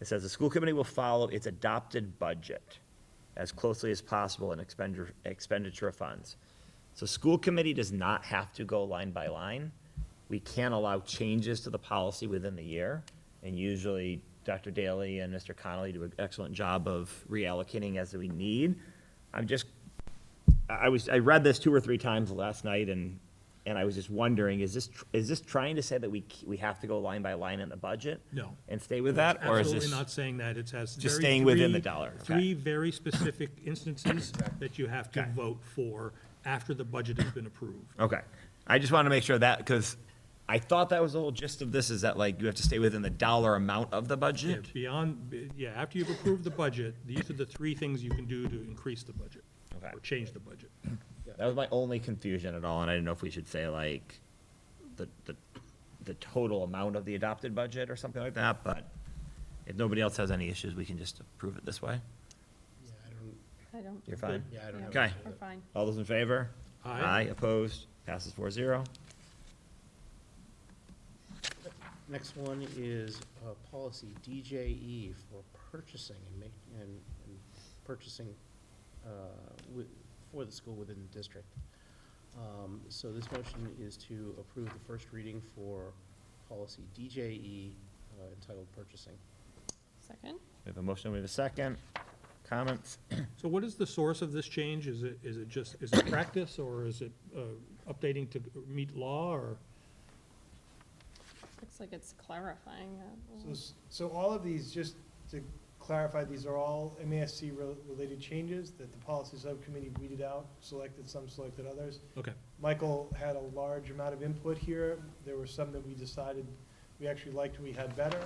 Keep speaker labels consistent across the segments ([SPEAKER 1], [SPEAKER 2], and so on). [SPEAKER 1] It says the school committee will follow its adopted budget as closely as possible in expenditure, expenditure of funds. So school committee does not have to go line by line. We can allow changes to the policy within the year. And usually Dr. Daly and Mr. Connolly do an excellent job of reallocating as we need. I'm just, I I was, I read this two or three times last night and, and I was just wondering, is this, tr- is this trying to say that we, c- we have to go line by line in the budget?
[SPEAKER 2] No.
[SPEAKER 1] And stay with that? Or is
[SPEAKER 2] Absolutely
[SPEAKER 1] this?
[SPEAKER 2] not saying that, it has.
[SPEAKER 1] Just
[SPEAKER 2] very
[SPEAKER 1] staying within the
[SPEAKER 2] three-
[SPEAKER 1] dollar, okay.
[SPEAKER 2] Three very specific instances that you have to
[SPEAKER 1] Okay.
[SPEAKER 2] vote for after the budget has been approved.
[SPEAKER 1] Okay. I just wanted to make sure that, because I thought that was the whole gist of this, is that like you have to stay within the dollar amount of the
[SPEAKER 2] Yeah,
[SPEAKER 1] budget?
[SPEAKER 2] Beyond, yeah, after you've approved the budget, these are the three things you can do to increase the budget
[SPEAKER 1] Okay.
[SPEAKER 2] or change the budget.
[SPEAKER 1] That was my only confusion at all, and I didn't know if we should say like the, the, the total amount of the adopted budget or something like that, but if nobody else has any issues, we can just approve it this way.
[SPEAKER 3] Yeah, I don't,
[SPEAKER 4] I don't.
[SPEAKER 1] You're fine?
[SPEAKER 3] yeah, I don't know.
[SPEAKER 1] Okay.
[SPEAKER 4] We're fine.
[SPEAKER 1] All those in favor?
[SPEAKER 2] Aye.
[SPEAKER 1] Aye, opposed, passes four zero.
[SPEAKER 3] Next one is uh, policy DJE for purchasing and make, and and purchasing uh, wi- for the school within the district. Um, So this motion is to approve the first reading for policy DJE uh, entitled purchasing.
[SPEAKER 4] Second?
[SPEAKER 1] We have a motion, we have a second. Comments?
[SPEAKER 2] So what is the source of this change? Is it, is it just, is it practice or is it uh, updating to meet law or?
[SPEAKER 4] Looks like it's clarifying that. a
[SPEAKER 5] So
[SPEAKER 4] little.
[SPEAKER 5] s- So all of these, just to clarify, these are all MASC rel- related changes that the policy subcommittee weeded out, selected some, selected others.
[SPEAKER 2] Okay,
[SPEAKER 5] Michael had a large amount of input here. There were some that we decided we actually liked, we had better.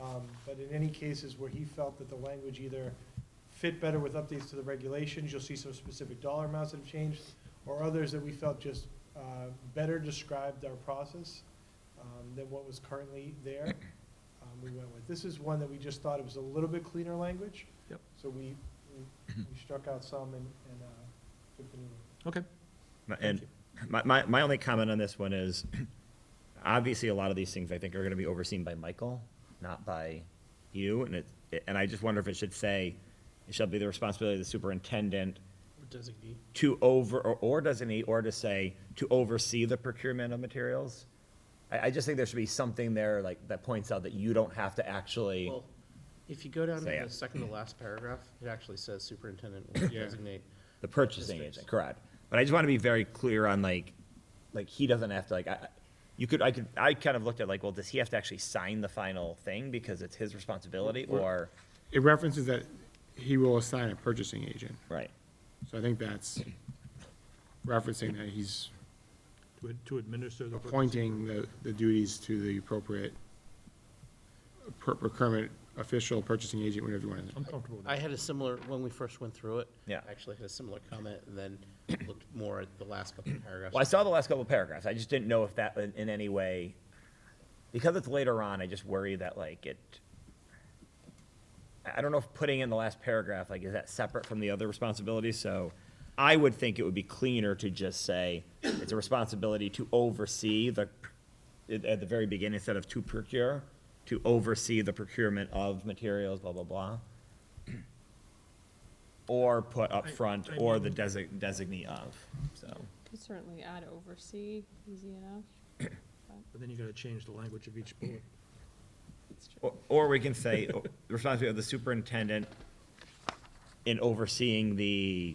[SPEAKER 5] Um, But in any cases where he felt that the language either fit better with updates to the regulations, you'll see some specific dollar amounts that have changed, or others that we felt just uh, better described our process um, than what was currently there, um, we went with. This is one that we just thought it was a little bit cleaner language.
[SPEAKER 2] Yep.
[SPEAKER 5] So we, we we struck out some and, and uh, took the new one.
[SPEAKER 2] okay.
[SPEAKER 1] My- And my, my, my only comment on this one is, obviously, a lot of these things, I think, are gonna be overseen by Michael, not by you, and it, and I just wonder if it should say, it shall be the responsibility of the superintendent
[SPEAKER 3] Designee.
[SPEAKER 1] to over, or, or designate, or to say, to oversee the procurement of materials. I, I just think there should be something there, like, that points out that you don't have to actually,
[SPEAKER 3] Well, if you go down to
[SPEAKER 1] Say
[SPEAKER 3] the
[SPEAKER 1] it.
[SPEAKER 3] second to last paragraph, it actually says superintendent will designate.
[SPEAKER 1] the purchasing
[SPEAKER 3] districts.
[SPEAKER 1] agent, correct. But I just wanna be very clear on like, like, he doesn't have to, like, I, I- you could, I could, I kind of looked at like, well, does he have to actually sign the final thing because it's his responsibility, or?
[SPEAKER 6] It references that he will assign a purchasing agent,
[SPEAKER 1] Right.
[SPEAKER 6] so I think that's referencing that he's
[SPEAKER 2] To ad- To administer the.
[SPEAKER 6] appointing the, the duties to the appropriate per- procurement official, purchasing agent, whatever you want.
[SPEAKER 2] I'm comfortable with
[SPEAKER 3] I
[SPEAKER 2] that.
[SPEAKER 3] had a similar, when we first went through it.
[SPEAKER 1] Yeah.
[SPEAKER 3] I Actually had a similar comment, and then looked more at the last couple of paragraphs.
[SPEAKER 1] Well, I saw the last couple of paragraphs. I just didn't know if that in, in any way, because it's later on, I just worry that like it, I I don't know if putting in the last paragraph, like, is that separate from the other responsibilities? So I would think it would be cleaner to just say it's a responsibility to oversee the, at at the very beginning, instead of to procure, to oversee the procurement of materials, blah, blah, blah. Or put up
[SPEAKER 2] I-
[SPEAKER 1] front,
[SPEAKER 2] I
[SPEAKER 1] or
[SPEAKER 2] mean-
[SPEAKER 1] the desi- designee of, so.
[SPEAKER 4] Could certainly add oversee, easy enough.
[SPEAKER 2] But then you gotta change the language of each bullet.
[SPEAKER 4] It's true.
[SPEAKER 1] Or- Or we can say, oh, the responsibility of the superintendent in overseeing the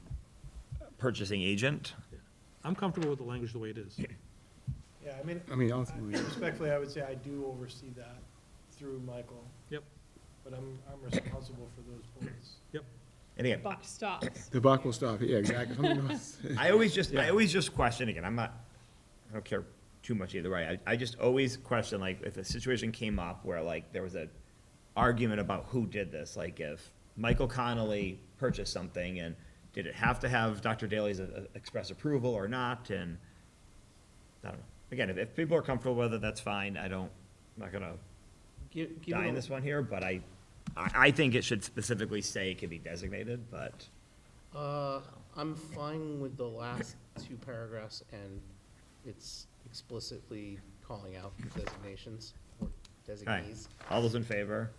[SPEAKER 1] purchasing agent.
[SPEAKER 2] I'm comfortable with the language the way it is.
[SPEAKER 5] Yeah, I mean,
[SPEAKER 6] I mean, ultimately,
[SPEAKER 5] Respectfully, I would say I do oversee that through Michael,
[SPEAKER 2] Yep,
[SPEAKER 5] but I'm, I'm responsible for those bullets.
[SPEAKER 2] yep.
[SPEAKER 1] And again,
[SPEAKER 4] Buck stops.
[SPEAKER 6] the buck will stop, yeah, exactly. Something else.
[SPEAKER 1] I always just, I always just question, again, I'm not, I don't care too much either way. I, I just always question, like, if a situation came up where, like, there was a argument about who did this, like, if Michael Connolly purchased something, and did it have to have Dr. Daly's uh, uh, express approval or not, and I don't know. Again, if, if people are comfortable with it, that's fine. I don't, I'm not gonna
[SPEAKER 3] Gi- given
[SPEAKER 1] die in
[SPEAKER 3] the-
[SPEAKER 1] this one here, but I, I, I think it should specifically say it can be designated, but,
[SPEAKER 3] Uh, I'm fine with the last two paragraphs, and it's explicitly calling out designations or
[SPEAKER 1] all right.
[SPEAKER 3] designees.
[SPEAKER 1] All those in favor?